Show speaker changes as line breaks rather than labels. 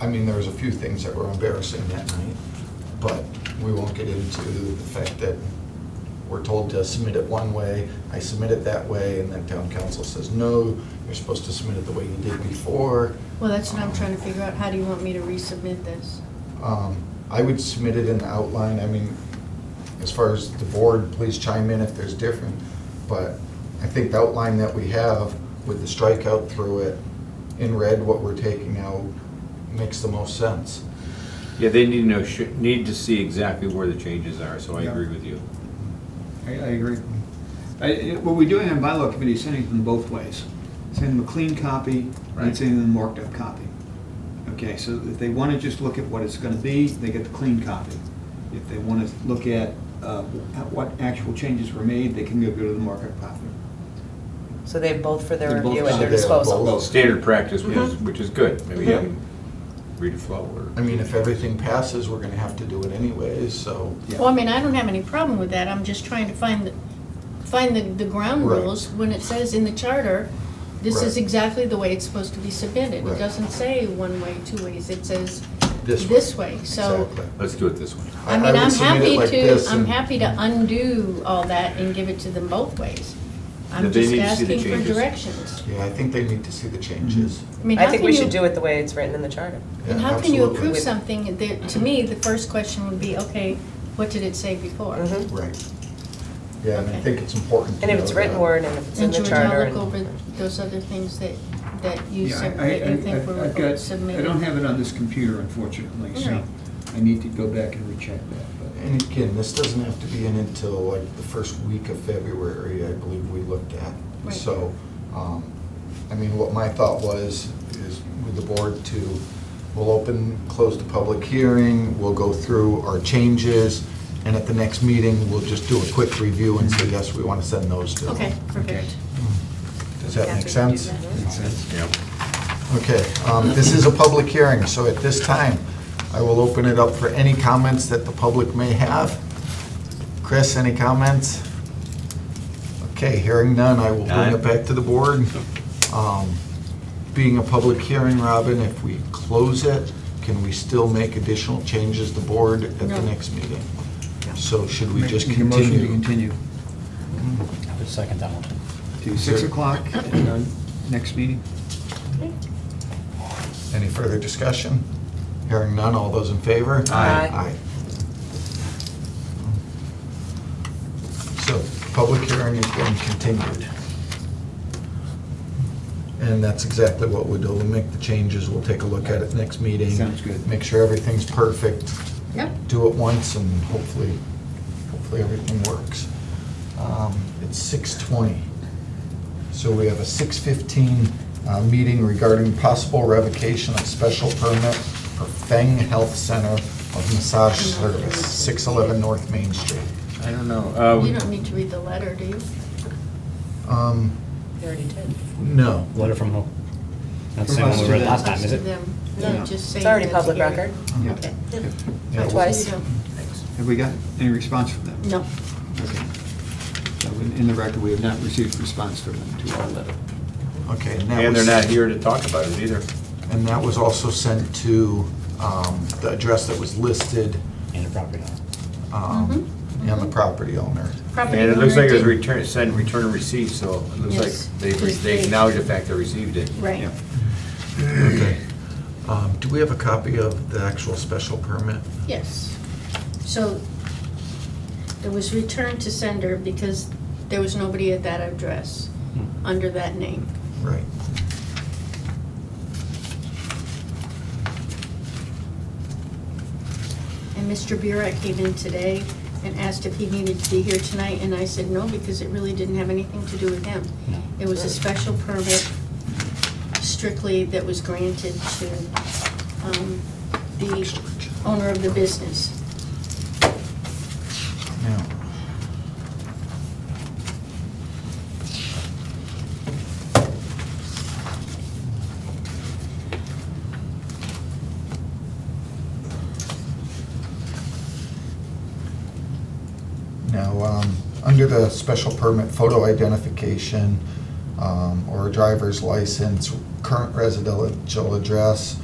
I mean, there was a few things that were embarrassing that night, but we won't get into the fact that we're told to submit it one way, I submit it that way, and then town council says, no, you're supposed to submit it the way you did before.
Well, that's what I'm trying to figure out, how do you want me to resubmit this?
Um, I would submit it in the outline, I mean, as far as the board, please chime in if there's different, but I think the outline that we have with the strikeout through it, in red, what we're taking out, makes the most sense.
Yeah, they need to know, should- need to see exactly where the changes are, so I
Yeah.
agree with you.
I, I agree. I- I- What we're doing on bylaw committee is sending them both ways. Sending them a clean copy and
Right.
sending them a marked up copy. Okay, so if they want to just look at what it's going to be, they get the clean copy. If they want to look at uh, at what actual changes were made, they can go go to the markup copy.
So they have both for their
They're both-
review at
so
their
they have
disposal.
both.
Standard practice, which is,
Mhm.
which is good, maybe
Yeah.
um, read a flow or.
I mean, if everything passes, we're gonna have to do it anyways, so.
Yeah.
Well, I mean, I don't have any problem with that, I'm just trying to find, the find the, the ground
Right.
rules when it says in the charter, this is
Right.
exactly the way it's supposed to be submitted. It
Right.
doesn't say one way, two ways, it says
This way.
this way, so.
Exactly.
Let's do it this way.
I-
I
I
mean,
would
I'm
submit it
happy
like
to,
this
I'm
and-
happy to undo all that and give it to them both ways. I'm
But they
just
need to see the
asking for
changes.
directions.
Yeah, I think they need to see the changes.
I mean,
I
how
think
can
we
you-
should do it the way it's written in the charter.
Yeah,
Mm-hmm. And how can you
absolutely.
approve something that, to me, the first question would be, okay, what did it say before?
Mhm.
Right. Yeah, and I
Okay.
think it's important to
And if
know
it's written
that.
word and if it's in
And
the
George, I'll
charter.
look over
and-
those other things that, that you
Yeah,
said,
I-
that you
I-
think
I- I've
were
got- I
submitted.
don't have it on this computer unfortunately, so
Right.
I need to go back and recheck that.
And again, this doesn't have to be in until like the first week of February, I believe we looked at.
Right.
So, um, I mean, what my thought was, is with the board to, we'll open, close the public hearing, we'll go through our changes, and at the next meeting, we'll just do a quick review and say, yes, we want to send those to. them.
Okay, perfect.
Okay.
Does that
Happy
make
to do
sense?
that.
but- Makes sense.
Yeah.
Okay, um, this is a public hearing, so at this time, I will open it up for any comments that the public may have. Chris, any comments? Okay, hearing none, I will bring
None.
it back to the board. Um, Being a public hearing, Robin, if we close it, can we still make additional changes to board at the
No.
next meeting? So should we just
Make a motion to
continue?
continue
I would second that one.
to six o'clock at our next meeting.
Any further discussion? Hearing none, all those in favor?
Aye.
Aye. So, public hearing is being continued. And that's exactly what we'll do. We'll make the changes, we'll take a look at it next meeting.
Sounds good.
Make sure everything's perfect,
Yep.
do it once, and hopefully, hopefully everything works. Um, It's 6:20. So we have a 6:15 uh, meeting regarding possible revocation of special permit for Feng Health Center of Massage Service, 611 North Main Street.
I don't
You
Oh,
know. uh,
don't need to read the letter, do you?
Um,
They already did.
No.
Letter from who? That's the
From
one
us
we
to
read
them.
last time, is it?
Them. No,
Yeah.
just say
It's already
that's
public
here.
record.
Yeah.
Okay.
Yeah,
So
Twice.
you don't-
Have we got any response from them?
No.
Okay. So in in the record, we have not received response from them to our letter.
Okay. that
And they're
was-
not here to talk about it either.
And that was also sent to um, the address that was listed
And the property owner.
um, and the property owner.
Property
And it looks
owner
like it was
did-
return, send, return and receive, so it looks
Yes.
like they, they acknowledge the fact they received it.
Right.
Yeah.
Okay. Um, Do we have a copy of the actual special permit?
Yes. So it was returned to sender because there was nobody at that address
Hmm.
under that name.
Right.
And Mr. Burek came in today and asked if he needed to be here tonight, and I said no, because it really didn't have anything to do with him.
No.
It was a special permit strictly that was granted to um, the owner of the business.
Now, Now, um, under the special permit photo identification um, or driver's license, current residential address,